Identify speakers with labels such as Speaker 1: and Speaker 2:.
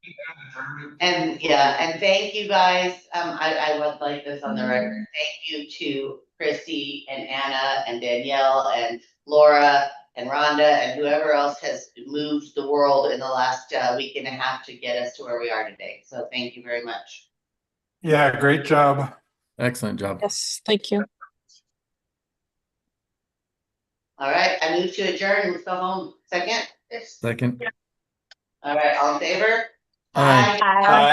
Speaker 1: Affirmative.
Speaker 2: And yeah, and thank you guys, um, I, I would like this on the record, thank you to Chrissy and Anna and Danielle and Laura and Rhonda and whoever else has moved the world in the last, uh, week and a half to get us to where we are today, so thank you very much.
Speaker 3: Yeah, great job.
Speaker 4: Excellent job.
Speaker 5: Yes, thank you.
Speaker 2: All right, I move to adjourn, let's go home, second,
Speaker 4: Second.
Speaker 2: all right, all in favor?
Speaker 4: Aye.
Speaker 3: Bye.